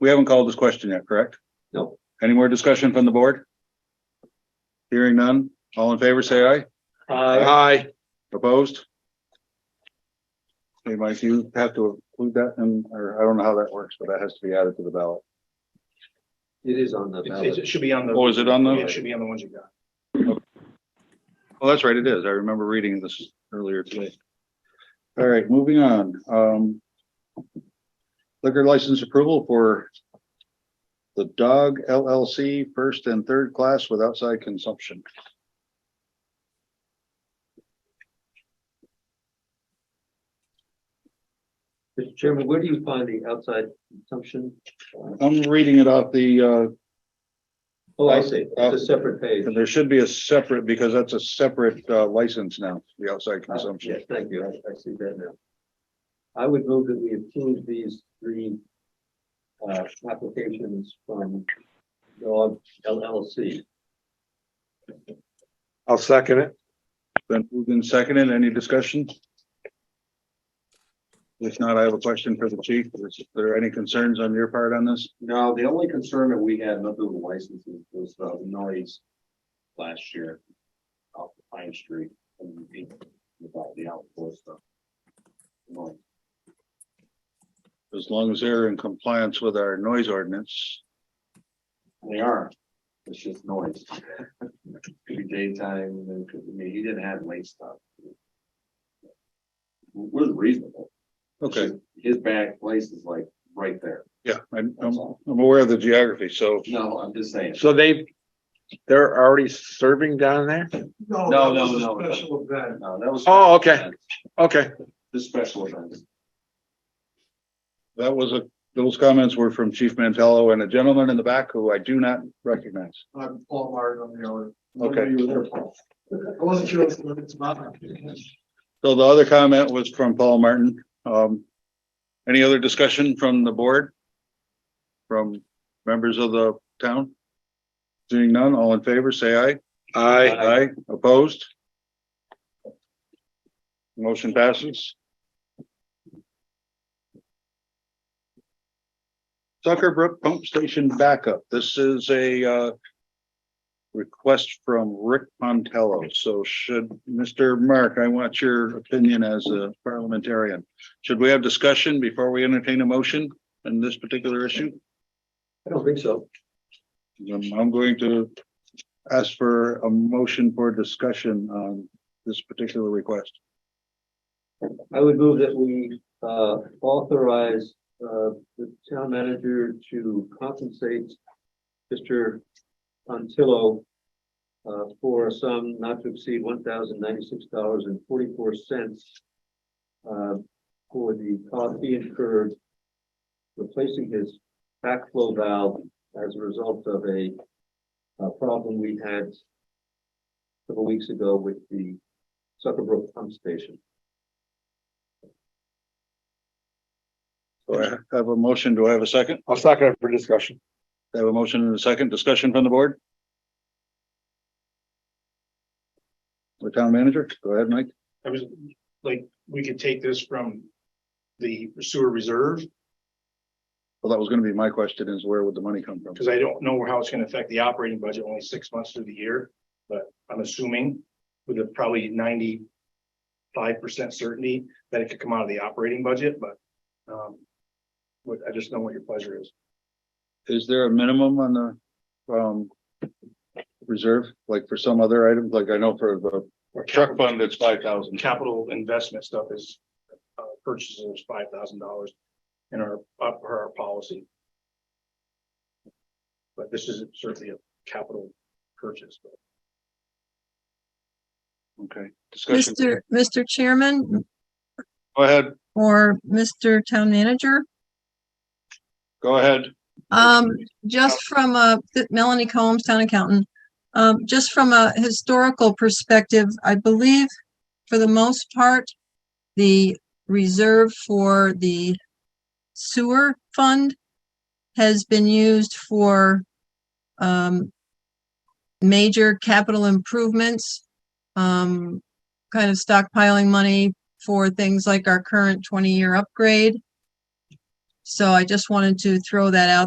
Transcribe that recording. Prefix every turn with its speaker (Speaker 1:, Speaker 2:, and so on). Speaker 1: We haven't called this question yet, correct?
Speaker 2: No.
Speaker 1: Any more discussion from the board? Hearing none, all in favor, say aye. Aye. Opposed? Hey, Mike, you have to include that in, or I don't know how that works, but that has to be added to the ballot.
Speaker 2: It is on the
Speaker 3: It, it
Speaker 2: ballot.
Speaker 3: should be on the.
Speaker 1: Oh, is it on the-
Speaker 3: It should be on the ones you got.
Speaker 1: Well, Oh, that's right, it is. I remember reading this earlier today. All right, moving on, um. Liquor license approval for. The Dog LLC first and third class with outside consumption.
Speaker 2: Mr. Chairman, where do you find the outside consumption?
Speaker 1: I'm reading it off the, uh,
Speaker 2: Oh, I see. It's a separate page.
Speaker 1: and there should be a separate, because that's a separate, uh, license now, the outside
Speaker 4: Oh,
Speaker 2: Ah,
Speaker 1: consumption.
Speaker 2: Yes, thank you. I, I see that now. I would move that we approve these three uh, applications from Dog LLC.
Speaker 4: I'll second it.
Speaker 1: Then moved and seconded. any discussion? If not, I have a question for the chief. Is there any concerns on your part on this?
Speaker 5: No, the only concern that we had, nothing with the licenses, was uh, the noise last year off the Pine Street and the- about the uh, outdoor stuff. Well,
Speaker 1: As long as they're in compliance with our noise ordinance.
Speaker 5: They are, it's just noise. Could be daytime, and then could, I mean, he didn't have late stuff. We're reasonable.
Speaker 1: Okay,
Speaker 5: His back place is like right there,
Speaker 1: yeah, I'm,
Speaker 5: that's
Speaker 4: Um,
Speaker 1: I'm,
Speaker 5: all.
Speaker 1: I'm aware of the geography, so
Speaker 5: No, I'm just saying.
Speaker 4: So they, they're already serving down there?
Speaker 5: No,
Speaker 3: that
Speaker 5: no,
Speaker 3: was a
Speaker 5: no, no.
Speaker 3: Special event.
Speaker 5: No, that was.
Speaker 4: Oh, okay. Okay,
Speaker 5: The special event.
Speaker 1: that was a, those comments were from Chief Mantello and a gentleman in the back who I do not recognize.
Speaker 3: I'm Paul Martin on the other.
Speaker 1: Okay.
Speaker 3: You were there, Paul. I wasn't sure what it's about.
Speaker 1: So the other comment was from Paul Martin. Um, any other discussion from the board? From members of the town? Seeing none, all in favor, say aye.
Speaker 4: I,
Speaker 1: Aye, opposed? Motion passes. Tucker Brook Pump Station Backup. This is a uh, request from Rick Pontello. So should, Mr. Mark, I want your opinion as a parliamentarian. Should we have discussion before we entertain a motion on this particular issue?
Speaker 2: I don't think so.
Speaker 1: Um, I'm going to ask for a motion for discussion on this particular request.
Speaker 2: I would move that we uh, authorize uh, the town manager to compensate Mr. Antillo uh, for a sum not to exceed one thousand ninety-six dollars and forty-four cents uh, for the cost he incurred replacing his backflow valve as a result of a uh, problem we had several weeks ago with the Suckerbrook pump station.
Speaker 1: Do I have a motion? Do I have a second?
Speaker 4: I'll second it for discussion.
Speaker 1: I have a motion and a second discussion from the board. The town manager, go ahead, Mike.
Speaker 3: I was, like, we could take this from the sewer reserve,
Speaker 1: Well, that was gonna be my question is where would the money come from?
Speaker 3: because I don't know how it's gonna affect the operating budget, only six months through the year. But I'm assuming with a probably ninety-five percent certainty that it could come out of the operating budget, but, um, what, I just know what your pleasure is.
Speaker 1: Is there a minimum on the, um, reserve, like for some other items? Like I know for the
Speaker 3: Or
Speaker 1: truck fund, it's five thousand.
Speaker 3: capital investment stuff is uh, purchases is five thousand dollars in our, up per our policy. But this is certainly a capital purchase. but
Speaker 1: Okay, discussion.
Speaker 6: Mr. Mr. Chairman
Speaker 1: Go ahead,
Speaker 6: or Mr. Town Manager,
Speaker 1: go ahead.
Speaker 6: um, just from a, Melanie Combs, Town Accountant. Um, just from a historical perspective, I believe for the most part, the reserve for the sewer fund has been used for, um, major capital improvements, um, kind of stockpiling money for things like our current twenty-year upgrade. So I just wanted to throw that out